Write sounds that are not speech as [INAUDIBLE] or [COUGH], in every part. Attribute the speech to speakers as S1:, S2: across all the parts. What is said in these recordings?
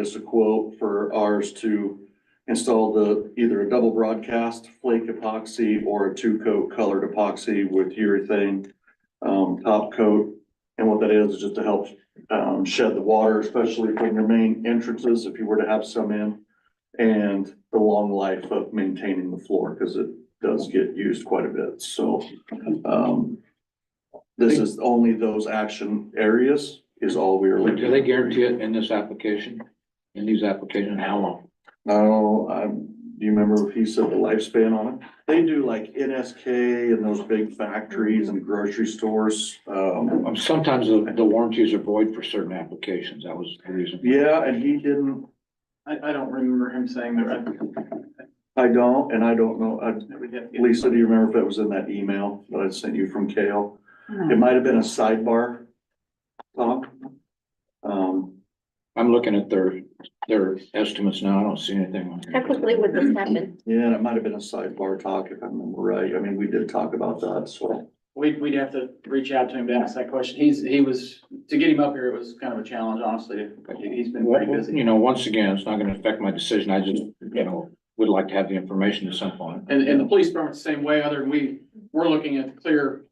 S1: us a quote for ours to install the, either a double broadcast flake epoxy or a two-coat colored epoxy with urethane um, top coat. And what that is, is just to help um, shed the water, especially from your main entrances, if you were to have some in. And the long life of maintaining the floor, because it does get used quite a bit, so. um, This is only those action areas is all we are looking.
S2: Do they guarantee it in this application, in these applications, how long?
S1: No, um, do you remember if he said the lifespan on it? They do like NSK and those big factories and grocery stores. Um,
S2: Um, Sometimes the the warranties are void for certain applications, that was the reason.
S1: yeah, and he didn't,
S3: I, I don't remember him saying that. I-
S1: I don't, and I don't know, I,
S3: I would have to-
S1: Lisa, do you remember if that was in that email that I sent you from Kale? It might have been a sidebar, Tom. Um,
S2: I'm looking at their, their estimates now, I don't see anything. on
S4: How
S2: here.
S4: quickly would this happen?
S1: yeah, and it might have been a sidebar talk if I remember right. I mean, we did talk about that, so.
S3: We'd, we'd have to reach out to him to ask that question. He's, he was, to get him up here, it was kind of a challenge, honestly. He's been pretty busy.
S2: You know, once again, it's not gonna affect my decision, I just, you know, would like to have the information at some point.
S3: And, and the police department's the same way, other than we, we're looking at clear,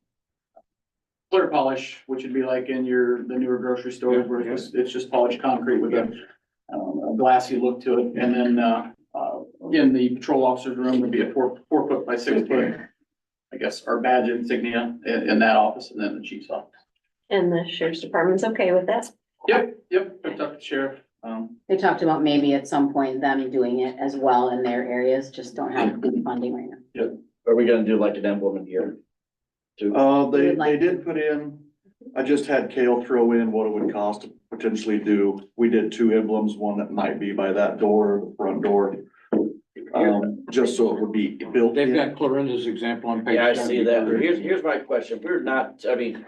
S3: clear polish, which would be like in your, the newer grocery store, where it's, just- it's just polished concrete with a, um, a glassy look to it. And then, uh, uh, in the patrol officer's room would be a four, four foot by six foot, I guess, our badge insignia in, in that office and then the chief's office.
S4: And the sheriff's department's okay with that?
S3: Yep, yep, picked up the sheriff. Um,
S5: They talked about maybe at some point them doing it as well in their areas, just don't
S1: [CLEARS THROAT]
S5: have the funding right now.
S6: Are we gonna do like an emblem here?
S1: Uh, they,
S5: You would
S1: they
S5: like-
S1: did put in, I just had Kale throw in what it would cost to potentially do. We did two emblems, one that might be by that door, the front door. Um, just so it would be built
S2: They've
S1: in.
S2: got Clarinda's example on page.
S6: Yeah, I see that.
S2: 70.
S6: Here's, here's my question. We're not, I mean,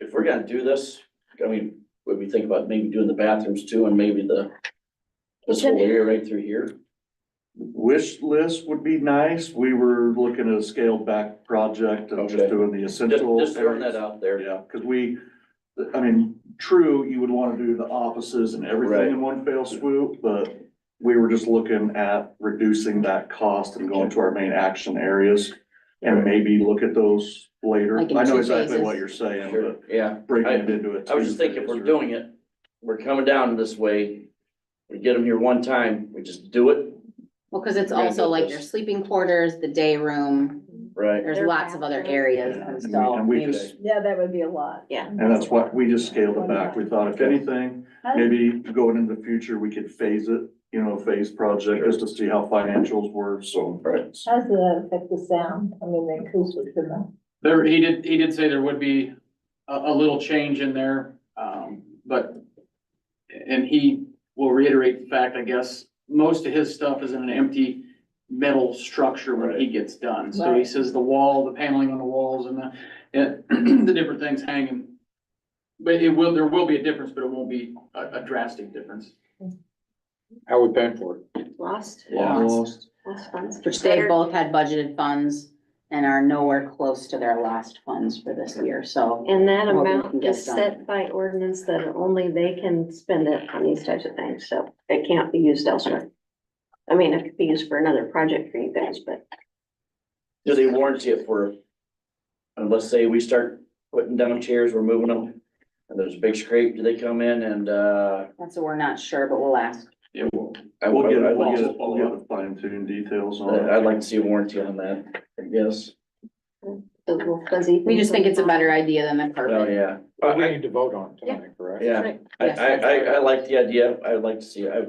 S6: if we're gonna do this, I mean, would we think about maybe doing the bathrooms too and maybe the this whole area right through here?
S1: Wish list would be nice. We were looking at a scaled back project of just
S6: Okay.
S1: doing the
S6: Just,
S1: essential.
S6: just throwing that
S1: areas.
S6: out there.
S1: Yeah, because we, I mean, true, you would want to do the offices and everything in one fell swoop, but we were just looking at reducing that cost and going to our main action areas and maybe look at those later. I
S5: Like in
S1: know
S5: two
S1: exactly
S5: phases.
S1: what you're saying,
S6: Sure,
S1: but
S6: yeah.
S1: breaking it into it.
S6: I was just thinking, if we're doing it, we're coming down this way, we get them here one time, we just do it,
S5: Well, cause it's
S6: We're gonna
S5: also
S6: do
S5: like
S6: this.
S5: your sleeping quarters, the day room,
S6: right?
S5: there's
S4: Their
S5: lots of other
S4: bathroom.
S5: areas
S1: Yeah,
S5: and
S1: and we-
S5: so.
S1: and we
S5: maybe-
S1: just-
S7: Yeah, that would be a lot.
S4: Yeah.
S1: And that's why we just scaled it back. We thought if anything, maybe going into the future, we could phase it, you know, phase project just to see how financials were, so.
S6: Right.
S7: How does that affect the sound? I mean, the acoustics in the.
S3: there, he did, he did say there would be a, a little change in there, um, but, and he will reiterate the fact, I guess, most of his stuff is in an empty metal structure when he gets done. So he
S7: Right.
S3: says the wall, the paneling on the walls and the, and [CLEARS THROAT] the different things hanging. But it will, there will be a difference, but it won't be a, a drastic difference.
S2: How are we paying for it?
S4: Lost,
S1: Lost.
S4: lost funds.
S5: Which they
S4: Better-
S5: both had budgeted funds and are nowhere close to their last funds for this year, so.
S4: And that
S5: what we
S4: amount
S5: can get
S4: is
S5: done.
S4: set by ordinance that only they can spend it on these types of things, so it can't be used elsewhere. I mean, it could be used for another project for you guys, but
S6: Do they warranty it for, and let's say we start putting down chairs, we're moving them, and there's a big scrape, do they come in and, uh?
S5: That's what we're not sure, but we'll ask.
S3: It will.
S6: I
S1: We'll
S6: would-
S1: get,
S6: I'd
S1: we'll
S6: like-
S1: get, we'll get the fine tuned details on it.
S6: I'd like to see a warranty on that, I guess.
S4: the little fuzzy.
S5: We just
S4: things
S5: think it's a
S4: on the-
S5: better idea than the
S6: Oh,
S5: permit.
S6: yeah.
S2: Well, we need to vote on it tonight, correct?
S6: Yeah. I,
S5: Yes,
S6: I,
S5: that's
S6: I,
S5: right.
S6: I like the idea. I'd like to see, I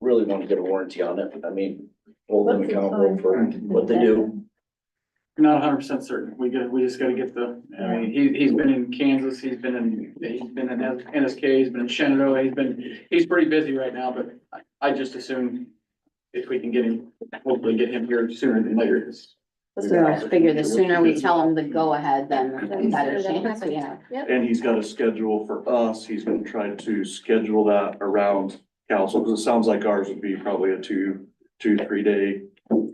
S6: really want to get a warranty on it. I mean, hold them
S7: What's the
S6: accountable
S7: time
S6: for what they do.
S3: Not hundred percent certain. We got, we just gotta get the, I mean, he, he's been in Kansas, he's been in, he's been in NSK, he's been in Shenandoah, he's been, he's pretty busy right now, but I, I just assume if we can get him, hopefully get him here sooner than later.
S5: So I figure the sooner we tell them the go-ahead, then the better chance we have.
S4: Yep.
S1: And he's got a schedule for us. He's gonna try to schedule that around council, because it sounds like ours would be probably a two, two, three day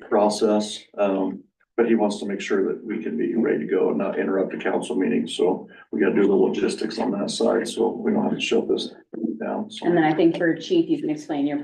S1: process. Um, But he wants to make sure that we can be ready to go and not interrupt a council meeting, so we gotta do the logistics on that side, so we don't have to shut this down. so.
S5: And then I think for chief, you can explain your